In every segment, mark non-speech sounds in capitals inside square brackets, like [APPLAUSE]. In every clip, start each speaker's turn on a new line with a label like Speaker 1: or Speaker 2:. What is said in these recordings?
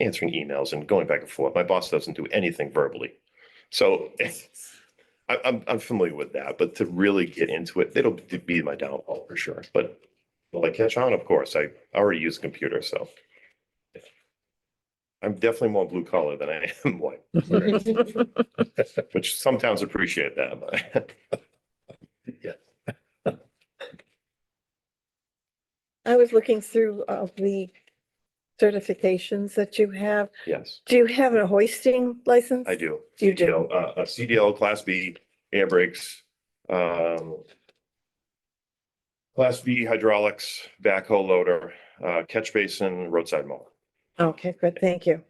Speaker 1: answering emails and going back and forth. My boss doesn't do anything verbally. So [LAUGHS] I, I'm, I'm familiar with that, but to really get into it, it'll be my downfall for sure. But will I catch on? Of course, I already use a computer, so. I'm definitely more blue collar than I am white, which some towns appreciate that, but. [LAUGHS]
Speaker 2: I was looking through of the certifications that you have.
Speaker 1: Yes,
Speaker 2: Do you have a hoisting license?
Speaker 1: I do.
Speaker 2: You do.
Speaker 1: CDL, Uh, a CDL Class B air brakes, um. Class B hydraulics, backhoe loader, uh, catch basin, roadside mower.
Speaker 2: Okay, good, thank you.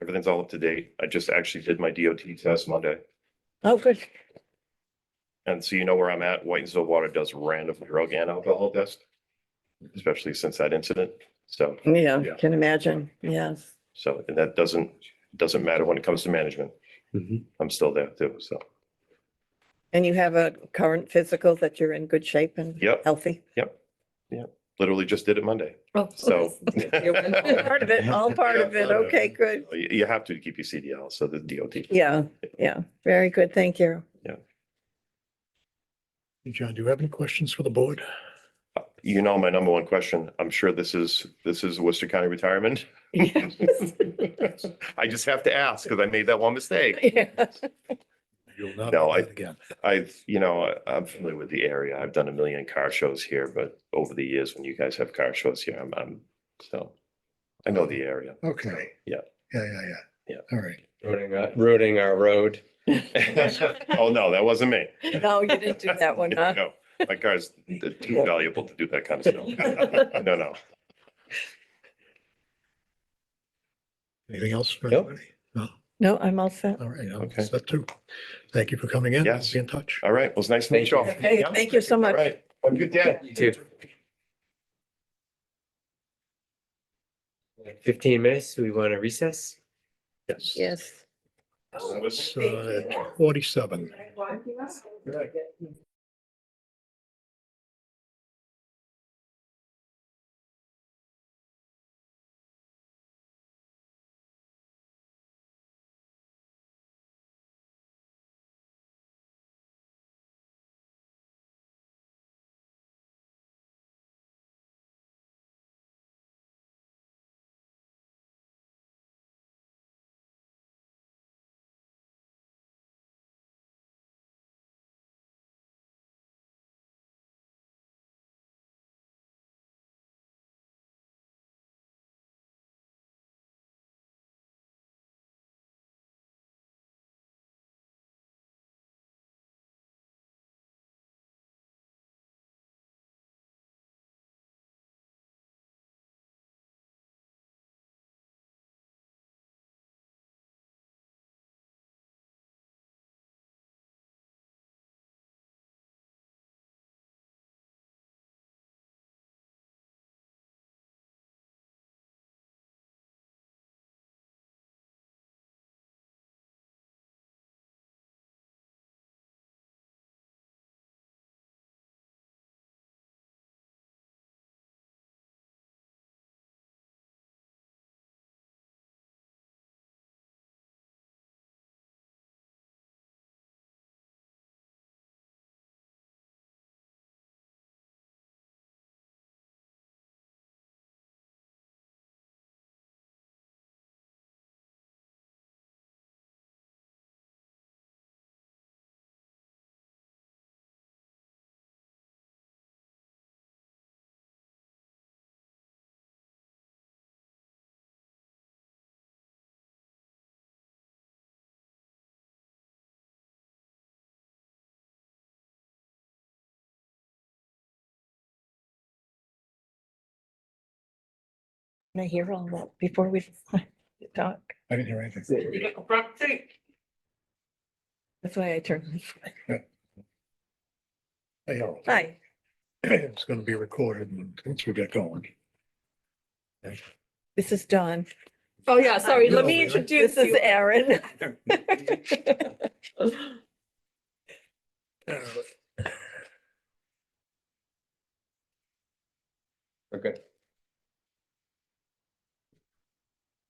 Speaker 1: Everything's all up to date. I just actually did my DOT test Monday.
Speaker 2: Oh, good.
Speaker 1: And so you know where I'm at. Whitensville Water does random drug and alcohol test. Especially since that incident. So,
Speaker 2: Yeah,
Speaker 1: Yeah.
Speaker 2: can imagine, yes.
Speaker 1: so, and that doesn't, doesn't matter when it comes to management.
Speaker 3: Mhm.
Speaker 1: I'm still there too, so.
Speaker 2: And you have a current physical that you're in good shape and
Speaker 1: Yep.
Speaker 2: healthy?
Speaker 1: Literally just did it Monday,
Speaker 2: Oh. [LAUGHS]
Speaker 1: so.
Speaker 2: All
Speaker 1: [LAUGHS]
Speaker 2: Part of it, all part of it, okay, good.
Speaker 1: You, you have to keep your CDL, so the DOT.
Speaker 2: Yeah, yeah, very good, thank you. [LAUGHS]
Speaker 3: John, do you have any questions for the board?
Speaker 1: You know, my number one question, I'm sure this is, this is Worcester County
Speaker 2: [LAUGHS]
Speaker 1: retirement. I just have to ask because I made that one mistake.
Speaker 2: [LAUGHS] Yeah.
Speaker 3: You'll not
Speaker 1: No,
Speaker 3: do
Speaker 1: I-
Speaker 3: that again.
Speaker 1: I've, you know, I- I'm familiar with the area. I've done a million car shows here, but over the years, when you guys have car shows here, I'm, I'm, so. I know the area. [LAUGHS]
Speaker 3: Okay.
Speaker 1: Yeah.
Speaker 3: Yeah, yeah, yeah.
Speaker 1: Yeah.
Speaker 3: All right.
Speaker 4: Ruining our, ruining our road.
Speaker 1: Oh, no, that wasn't me.
Speaker 2: No, you didn't do that one, huh?
Speaker 1: [LAUGHS] No, my car's too valuable to do that kind of stuff. [LAUGHS] No, no.
Speaker 3: Anything else for
Speaker 4: Nope.
Speaker 3: anybody? No?
Speaker 2: No, I'm all set.
Speaker 3: All right.
Speaker 1: Okay.
Speaker 3: Okay. That too. Thank you for coming in.
Speaker 1: Yes. Uh,
Speaker 3: Be in touch.
Speaker 1: All right. Well, it's nice to meet you all.
Speaker 4: Thank
Speaker 2: Okay,
Speaker 1: Yeah.
Speaker 2: thank you so
Speaker 1: All
Speaker 2: much.
Speaker 1: right. Have a good day.
Speaker 4: You too. Fifteen minutes, we want to recess?
Speaker 1: Yes.
Speaker 2: Yes.
Speaker 1: That was-
Speaker 3: It's, uh, Forty-seven.
Speaker 2: Can I hear all that before we [LAUGHS] talk?
Speaker 3: I didn't hear anything.
Speaker 2: That's why I turned.
Speaker 3: Hey, Harold.
Speaker 2: Hi.
Speaker 3: [CLEARS THROAT] It's going to be recorded and once we get going.
Speaker 2: This is Dawn.
Speaker 5: Oh, yeah, sorry, let
Speaker 3: No,
Speaker 5: me
Speaker 3: really?
Speaker 5: introduce
Speaker 2: This is
Speaker 5: you.
Speaker 2: Erin.
Speaker 5: [LAUGHS]
Speaker 3: [LAUGHS]
Speaker 4: Okay.